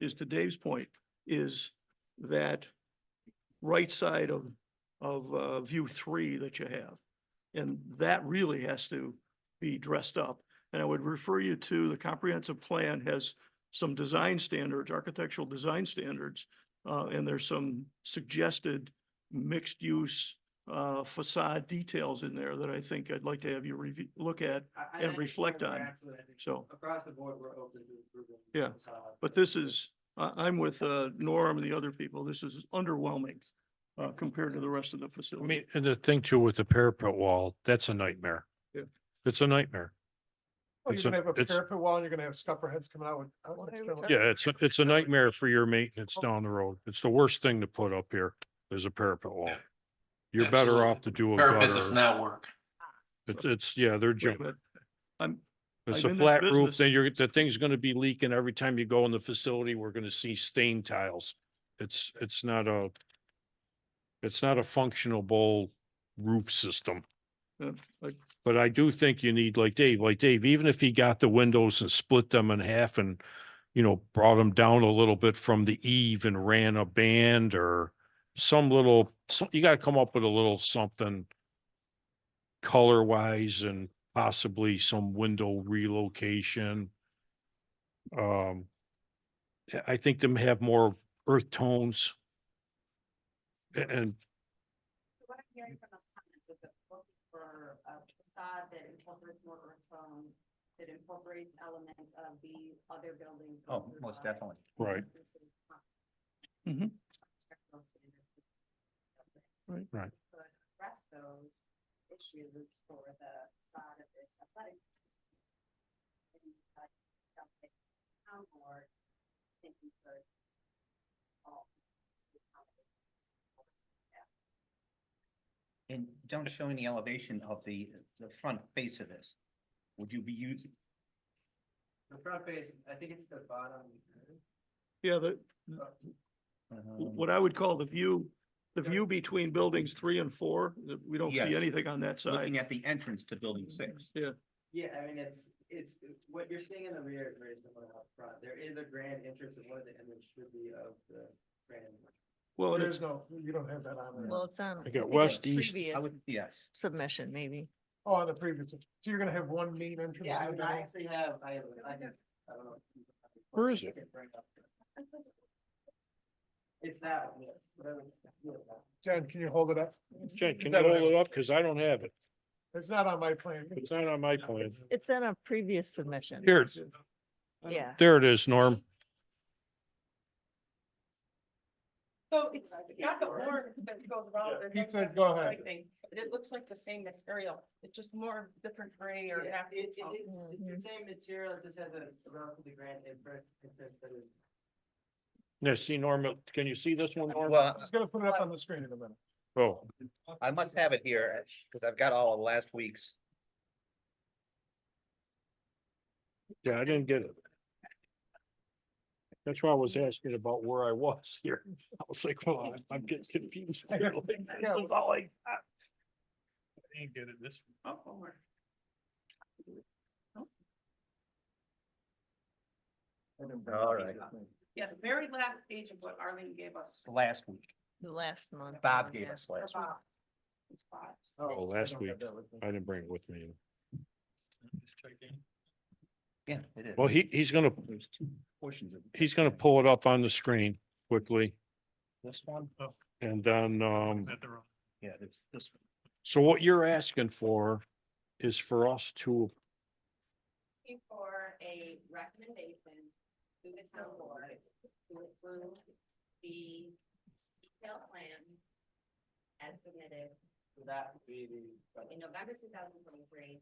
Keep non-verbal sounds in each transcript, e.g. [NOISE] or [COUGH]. is to Dave's point, is that right side of, of, uh, view three that you have. And that really has to be dressed up. And I would refer you to the comprehensive plan has some design standards, architectural design standards. Uh, and there's some suggested mixed use, uh, facade details in there that I think I'd like to have you review, look at. I- I and think we're reflect on it. absolutely- I think So. Across the board, we're open to improving. Yeah, facade. But this is, I, I'm with, uh, Norm and the other people. This is underwhelming, uh, compared to the rest of the I facility. mean, and the thing too with the parapet wall, that's a nightmare. Yeah. It's a nightmare. Oh, you're It's gonna a- have a it's- parapet wall, and you're gonna have scupper heads coming out with. Oh. outlets there we coming go. out. Yeah, it's, a- it's a nightmare for your maintenance down the road. It's the worst thing to put up here is a parapet wall. You're better off to do a Parapet gutter. does not work. It's, it's, yeah, they're junk. But I'm, It's I've a been in flat business- roof, then you're, the thing's gonna be leaking every time you go in the facility. We're gonna see stain tiles. It's, it's not a, it's not a functionable roof system. Yeah, I- But I do think you need, like Dave, like Dave, even if he got the windows and split them in half and, you know, brought them down a little bit from the eave and ran a band or some little, so- you gotta come up with a little something color wise and possibly some window relocation. Um, I- I think them have more earth tones. A- And So What I'm hearing from those comments is that we're looking for a facade that incorporates more earth tone, that incorporates elements of the other buildings. Oh, most definitely. Right. Mhm. Right. Right. But address those issues for the facade of this athletic. And, uh, something Town board, thinking for all. And don't show any elevation of the, the front face of this. Would you be using? The front face, I think it's the bottom. yeah, Um, the, um, what I would call the view, the view between buildings three and four, that we don't see Yeah. anything on that Looking side. at the entrance to building six. Yeah, Yeah, I mean, it's, it's, what you're seeing in the rear is very similar out front. There is a grand entrance and one of the image should be of the grand. well, and There it's, is no, you don't have that on there. Well, it's um, on. I think got it's west, the east. I previous would, yes. Submission, maybe. Oh, on the previous, so you're gonna have one main entrance. Yeah, I and mean, then I actually have, I have, I have, I don't know. Where is it? It's that one, yeah, whatever. yeah, that one. Jen, can you hold it up? Jen, can Is you that- hold it up? Cause I don't have it. It's not on my plan. It's not on my plan. It's on a previous submission. Here, Yeah. there it is, Norm. So it's got the orange that goes around. it, He that's said, got go the ahead. white thing, But it looks like the same material, it's just more different gray or. Yeah, half- It, it is, Mhm. it's the same material, it just has a relatively grand entrance entrance that is. Now, see Norm, can you see this one, Norm? Well, It's gonna put it up on the screen in a minute. Oh, I must have it here, because I've got all of last week's. yeah, I didn't get it. That's why I was asking about where I was here. I was like, well, I'm- I'm getting confused. [LAUGHS] here. Like, Yeah. That's all I got. I didn't get it this. All right. Yeah, the very last page of what Arlene gave us. Last week. The last month. Bob one, gave yeah. us last week. about these spots. Oh, last don't have week. that with me. I didn't bring it with me. Yeah, it is. Well, he, he's gonna, There's two portions of. he's gonna pull it up on the screen quickly This one? Oh, and then, um. Yeah, there's this. one. So what you're asking for is for us to, Looking for a recommendation to the town board to approve the detailed plan as submitted So that would be the. in November two thousand twenty-three.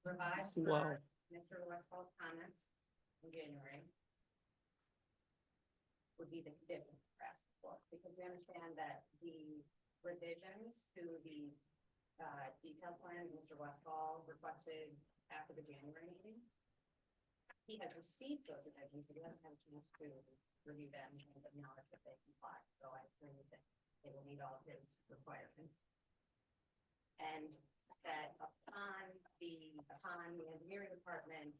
Revised Wow. for Mr. Westfall's comments in January. Would be the condition we're asking for, because we understand that the revisions to the uh, detailed plan that Mr. Westfall requested after the January meeting. He has received those revisions, but he hasn't had a chance to review them and acknowledge that they comply, so I agree with that they will meet all of his requirements. And that upon the, upon the engineering department